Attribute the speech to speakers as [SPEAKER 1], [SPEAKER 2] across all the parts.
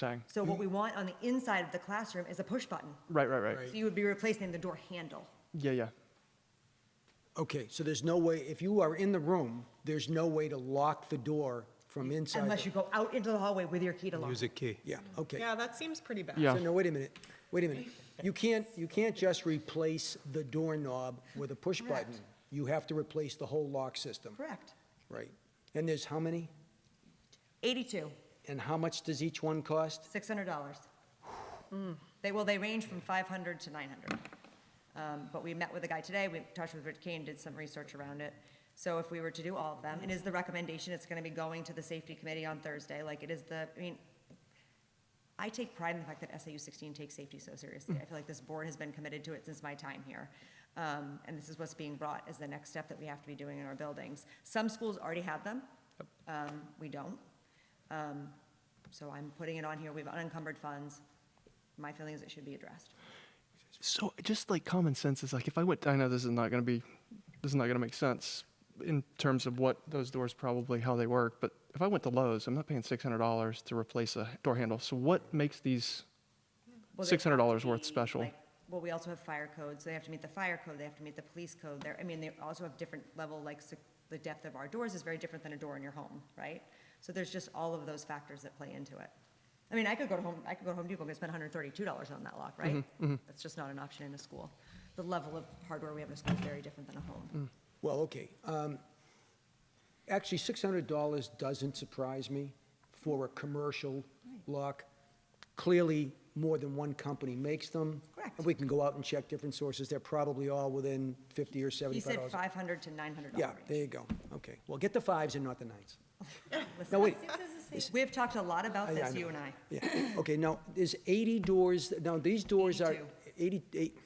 [SPEAKER 1] saying.
[SPEAKER 2] So what we want on the inside of the classroom is a push button.
[SPEAKER 1] Right, right, right.
[SPEAKER 2] So you would be replacing the door handle.
[SPEAKER 1] Yeah, yeah.
[SPEAKER 3] Okay, so there's no way, if you are in the room, there's no way to lock the door from inside?
[SPEAKER 2] Unless you
[SPEAKER 3] the-
[SPEAKER 2] go out into the hallway with your key to lock.
[SPEAKER 4] Use a key.
[SPEAKER 3] Yeah, okay.
[SPEAKER 5] Yeah, that seems pretty bad.
[SPEAKER 1] Yeah.
[SPEAKER 3] So no, wait a minute, wait a minute. You can't, you can't just replace the doorknob with a push button.
[SPEAKER 2] Correct.
[SPEAKER 3] You have to replace the whole lock system,
[SPEAKER 2] Correct.
[SPEAKER 3] right? And there's how many?
[SPEAKER 2] Eighty-two,
[SPEAKER 3] And how much does each one cost?
[SPEAKER 2] six hundred dollars. Mm. They, well, they range from five hundred to nine hundred. Um, but we met with a guy today, we talked with Rich Kane, did some research around it. So if we were to do all of them, it is the recommendation, it's gonna be going to the safety committee on Thursday, like it is the, I mean, I take pride in the fact that SAU 16 takes safety so seriously. I feel like this board has been committed to it since my time here. Um, and this is what's being brought as the next step that we have to be doing in our buildings. Some schools already have them. Um, we don't. Um, so I'm putting it on here. We have unencumbered funds. My feeling is it should be addressed.
[SPEAKER 1] So just like common sense is like if I went, I know this is not going to be, this is not going to make sense in terms of what those doors probably how they work. But if I went to Lowe's, I'm not paying six hundred dollars to replace a door handle. So what makes these
[SPEAKER 2] Well, they
[SPEAKER 1] six hundred dollars
[SPEAKER 2] have to
[SPEAKER 1] worth
[SPEAKER 2] be,
[SPEAKER 1] special?
[SPEAKER 2] like- Well, we also have fire codes. They have to meet the fire code. They have to meet the police code. There, I mean, they also have different level, like sec- the depth of our doors is very different than a door in your home, right? So there's just all of those factors that play into it. I mean, I could go to home, I could go to Home Depot and spend hundred and thirty-two dollars on that lock, right?
[SPEAKER 1] Mm-hmm,
[SPEAKER 2] That's just not an option in a school. The level of hardware we have in a school is very different than a home.
[SPEAKER 3] Well, okay. um, Actually, $600 doesn't surprise me for a commercial lock. Clearly, more than one company makes them.
[SPEAKER 2] Correct.
[SPEAKER 3] And we can go out and check different sources. They're probably all within 50 or
[SPEAKER 1] Mm.
[SPEAKER 3] 75
[SPEAKER 2] He said
[SPEAKER 3] dollars.
[SPEAKER 2] five hundred to nine hundred
[SPEAKER 3] Yeah,
[SPEAKER 2] dollars.
[SPEAKER 3] there you go. Okay. Well, get the fives and not the nines. No, wait.
[SPEAKER 2] We have talked a lot about
[SPEAKER 3] I- I
[SPEAKER 2] this,
[SPEAKER 3] know.
[SPEAKER 2] you and I.
[SPEAKER 3] Yeah. Okay, now, there's 80 doors, now, these doors are 88,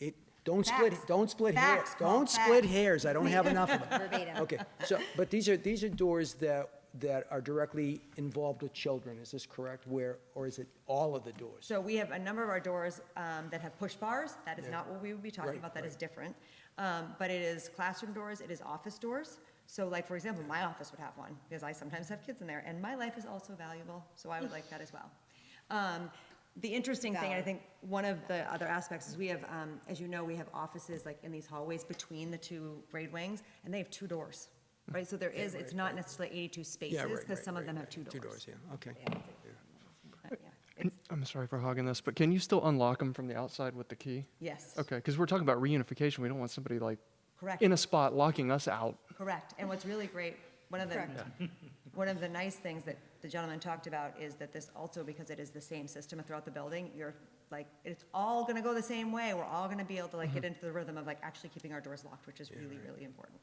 [SPEAKER 3] eight, don't split,
[SPEAKER 2] Facts.
[SPEAKER 3] don't split hairs.
[SPEAKER 2] Facts, Paul,
[SPEAKER 3] Don't split
[SPEAKER 2] facts.
[SPEAKER 3] hairs, I don't have enough of them.
[SPEAKER 6] Verbatim.
[SPEAKER 3] Okay, so, but these are, these are doors that, that are directly involved with children, is this correct? Where, or is it all of the doors?
[SPEAKER 2] So we have a number of our doors um, that have push bars. That is not what we would be talking
[SPEAKER 3] Right,
[SPEAKER 2] about. That is
[SPEAKER 3] right.
[SPEAKER 2] different. Um, But it is classroom doors, it is office doors. So like, for example, my office would have one because I sometimes have kids in there and my life is also valuable, so I would like that as well. Um, The interesting thing, I think, one of the other aspects is we have, um, as you know, we have offices like in these hallways between the two grade wings and they have two doors, right? So there is, it's not necessarily 82
[SPEAKER 3] Yeah,
[SPEAKER 2] spaces
[SPEAKER 3] right,
[SPEAKER 2] because
[SPEAKER 3] right,
[SPEAKER 2] some of
[SPEAKER 3] right,
[SPEAKER 2] them have
[SPEAKER 3] right.
[SPEAKER 2] two doors.
[SPEAKER 3] Two doors, yeah, okay.
[SPEAKER 2] But, yeah,
[SPEAKER 1] Can-
[SPEAKER 2] it's-
[SPEAKER 1] I'm sorry for hogging this, but can you still unlock them from the outside with the key?
[SPEAKER 2] Yes.
[SPEAKER 1] Okay, because we're talking about reunification. We don't want somebody like
[SPEAKER 2] Correct.
[SPEAKER 1] in a spot locking us out.
[SPEAKER 2] Correct, and what's really great, one of the, one of the nice things that the gentleman talked about is that this also, because it is the same system throughout the building, you're like, it's all gonna go the same way, we're all gonna be able to like
[SPEAKER 1] Mm-hmm.
[SPEAKER 2] get into the rhythm of like actually keeping our doors locked, which is really, really important.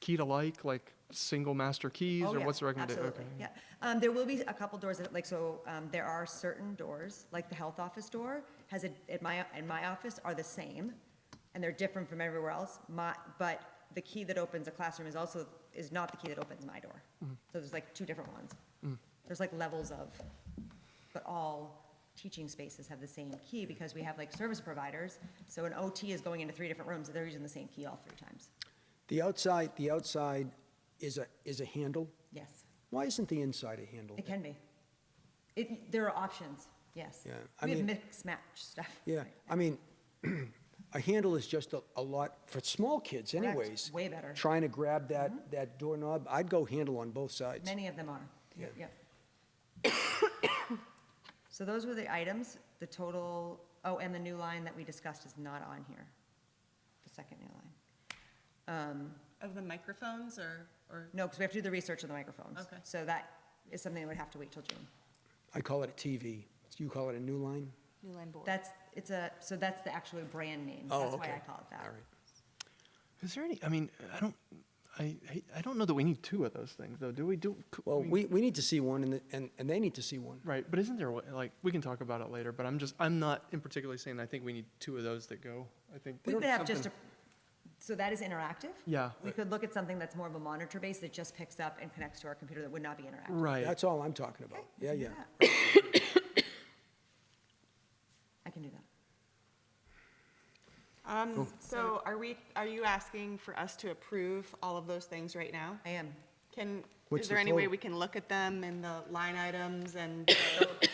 [SPEAKER 1] Key to like, like single master keys,
[SPEAKER 2] Oh,
[SPEAKER 1] or
[SPEAKER 2] yeah,
[SPEAKER 1] what's the recommendation?
[SPEAKER 2] Absolutely, yeah. Um, there will be a couple doors that, like, so, um, there are certain doors, like the health office door has a, at my, in my office are the same, and they're different from everywhere else. My, but the key that opens a classroom is also, is not the key that opens my door. So there's like two different ones. There's like levels of, but all teaching spaces have the same key because we have like service providers. So an OT is going into three different rooms, and they're using the same key all three times.
[SPEAKER 3] The outside, the outside is a, is a handle?
[SPEAKER 2] Yes.
[SPEAKER 3] Why isn't the inside a handle?
[SPEAKER 2] It can be. It, there are options, yes.
[SPEAKER 3] Yeah, I
[SPEAKER 2] We have
[SPEAKER 3] mean-
[SPEAKER 2] mixed match stuff.
[SPEAKER 3] Yeah, I mean, a handle is just a, a lot, for small kids anyways.
[SPEAKER 2] way better. Mm-hmm.
[SPEAKER 3] Trying to grab that, that doorknob, I'd go handle on both sides.
[SPEAKER 2] Many of them are, Yep, yep. So those were the items, the total, oh, and the new line that we discussed is not on here, the second new line.
[SPEAKER 5] Of the microphones or, or,
[SPEAKER 2] No, because we have to do the research on the microphones.
[SPEAKER 5] Okay.
[SPEAKER 2] So that is something that would have to wait till June.
[SPEAKER 3] I call it a TV. You call it a new line?
[SPEAKER 6] New line board.
[SPEAKER 2] That's, it's a, so that's the actual brand name.
[SPEAKER 3] Oh,
[SPEAKER 2] That's why
[SPEAKER 3] okay.
[SPEAKER 2] I call it that.
[SPEAKER 3] All right.
[SPEAKER 1] Is there any? I mean, I don't. I hate- I don't know that we need two of those things though. Do we? Do c-
[SPEAKER 3] Well,
[SPEAKER 1] we-
[SPEAKER 3] we, we need to see one and, the- and, and they need to see one.
[SPEAKER 1] right? But isn't there a way- like we can talk about it later? But I'm just I'm not in particularly saying I think we need two of those that go. I think
[SPEAKER 2] We could have just a,
[SPEAKER 1] something-
[SPEAKER 2] so that is interactive?
[SPEAKER 1] Yeah.
[SPEAKER 2] We could look at something that's more of a monitor base that just picks up and connects to our computer that would not be interactive.
[SPEAKER 1] right.
[SPEAKER 3] That's all I'm talking about.
[SPEAKER 2] I
[SPEAKER 3] Yeah,
[SPEAKER 2] can do
[SPEAKER 3] yeah.
[SPEAKER 2] that. I can do that.
[SPEAKER 5] um, so are we, are you asking for us to approve all of those things right now?
[SPEAKER 2] I am.
[SPEAKER 5] Can,
[SPEAKER 3] What's
[SPEAKER 5] is there
[SPEAKER 3] the
[SPEAKER 5] any way
[SPEAKER 3] total?
[SPEAKER 5] we can look at them and the line items and the